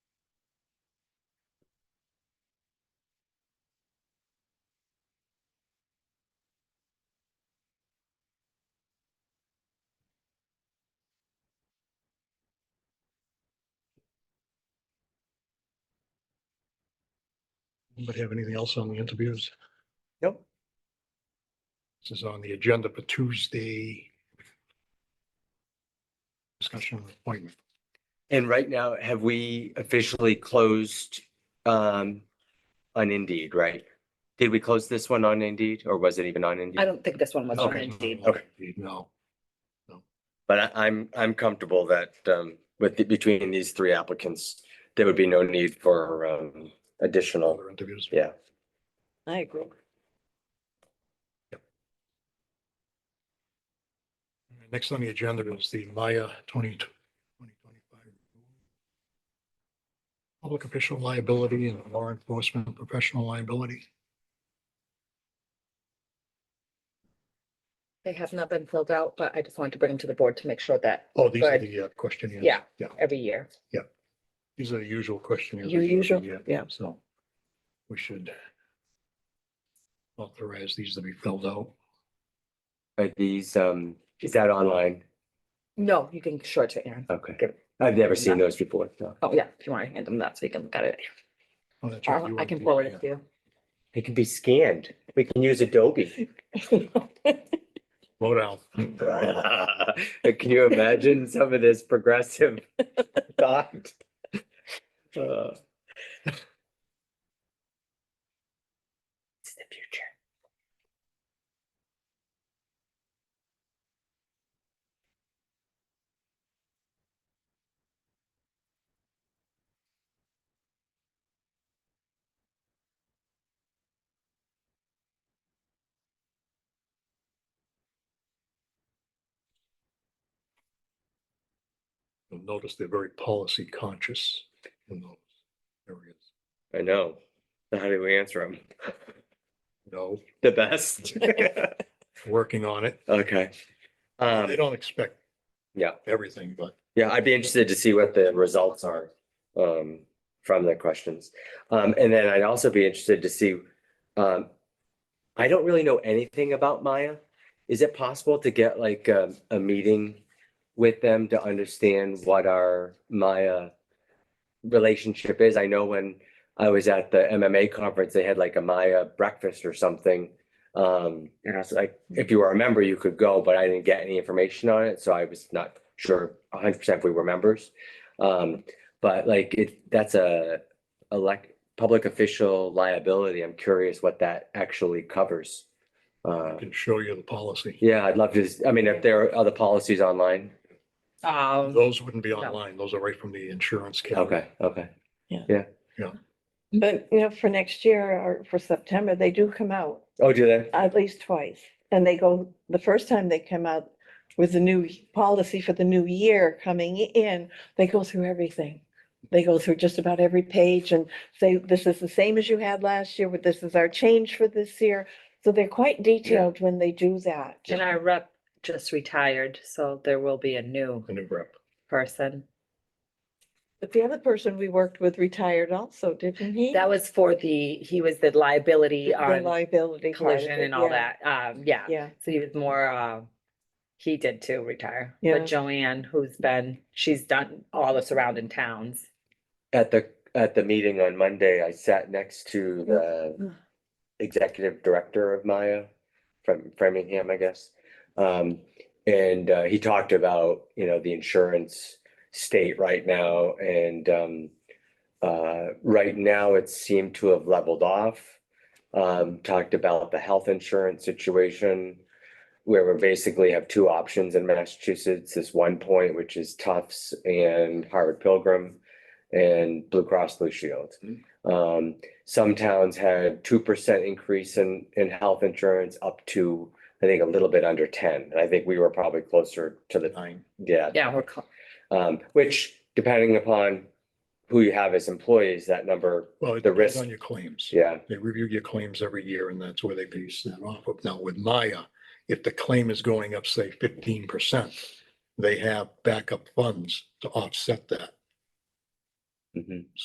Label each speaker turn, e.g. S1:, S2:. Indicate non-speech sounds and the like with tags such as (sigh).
S1: Anybody have anything else on the interviews?
S2: Nope.
S1: This is on the agenda for Tuesday. Discussion of appointment.
S2: And right now, have we officially closed um on Indeed, right? Did we close this one on Indeed or was it even on
S3: I
S2: Indeed?
S3: don't think this one was on Indeed.
S1: Okay, no.
S2: But I I'm I'm comfortable that um with the- between these three applicants, there would be no need for um additional,
S1: Other interviews.
S2: yeah.
S3: I agree.
S1: Next on the agenda is the Maya twenty twenty twenty-five. Public official liability and law enforcement professional liability.
S3: They have not been filled out, but I just wanted to bring them to the board to make sure that
S1: Oh, these are
S3: Good.
S1: the uh, questionnaires.
S3: Yeah.
S1: Yeah,
S3: every year.
S1: these are the usual questionnaires.
S3: Your usual,
S1: Yeah.
S3: yeah.
S1: So we should authorize these to be filled out.
S2: Are these um, is that online?
S3: No, you can show it to Aaron.
S2: Okay.
S3: Good.
S2: I've never seen those before. no.
S3: Oh, yeah, if you want to hand them that so you can look at it.
S1: Oh, that's right,
S3: Or
S1: you
S3: I
S1: are
S3: can
S1: the-
S3: forward it (laughs)
S1: yeah.
S3: to
S2: They can be scanned. We can use Adobe.
S3: you.
S1: Slow down.
S2: (laughs) Can you imagine some of this progressive thought? Uh, It's the future.
S1: You'll notice they're very policy conscious in those areas.
S2: I know. So How do we answer them?
S1: No,
S2: The best?
S1: working on it.
S2: Okay.
S1: They
S2: Um,
S1: don't expect
S2: yeah.
S1: everything, but
S2: Yeah, I'd be interested to see what the results are um from the questions. Um and then I'd also be interested to see um I don't really know anything about Maya. Is it possible to get like a a meeting with them to understand what our Maya relationship is? I know when I was at the MMA conference, they had like a Maya breakfast or something. Um, and I was like, if you were a member, you could go, but I didn't get any information on it, so I was not sure hundred percent if we were members. Um, but like it, that's a elect, public official liability. I'm curious what that actually covers.
S1: I
S2: Uh,
S1: can show you the policy.
S2: yeah, I'd love to, s- I mean, if there are other policies online.
S3: Um,
S1: Those wouldn't be online. Those are right from the insurance. carrier.
S2: Okay, okay.
S4: But, you know, for next year or for September, they do come out
S2: Oh, do they?
S4: at least twice. And they go, the first time they come out with the new policy for the new year coming in, they go through everything. They go through just about every page and say, this is the same as you had last year, but this is our change for this year. So they're quite detailed when they do that.
S5: And our rep just retired, so there will be a new
S1: The new rep.
S5: person.
S4: But the other person we worked with retired also, didn't he?
S5: That was for the, he was the liability
S4: The
S5: on
S4: liability. part of
S5: collision
S4: it,
S5: and all
S4: yeah,
S5: that. Um, yeah.
S4: Yeah.
S5: So he was more, uh, he did too retire.
S4: Yeah.
S5: But Joanne, who's been, she's done all the surrounding towns.
S2: At the, at the meeting on Monday, I sat next to the executive director of Maya from Framingham, I guess. Um, and uh, he talked about, you know, the insurance state right now and um uh, right now it seemed to have leveled off. Um, talked about the health insurance situation where we basically have two options in Massachusetts, this one point, which is Tufts and Harvard Pilgrim and Blue Cross Blue Shield. Um, some towns had two percent increase in, in health insurance up to, I think, a little bit under ten. And I think we were probably closer to the,
S1: Nine.
S2: yeah,
S5: Yeah, we're, cl-
S2: um, which depending upon who you have as employees, that number,
S1: Well, it
S2: The
S1: depends
S2: risk.
S1: on your claims.
S2: yeah,
S1: They review your claims every year and that's where they base that off of. Now with Maya, if the claim is going up, say fifteen percent, they have backup funds to offset that.
S2: mhm.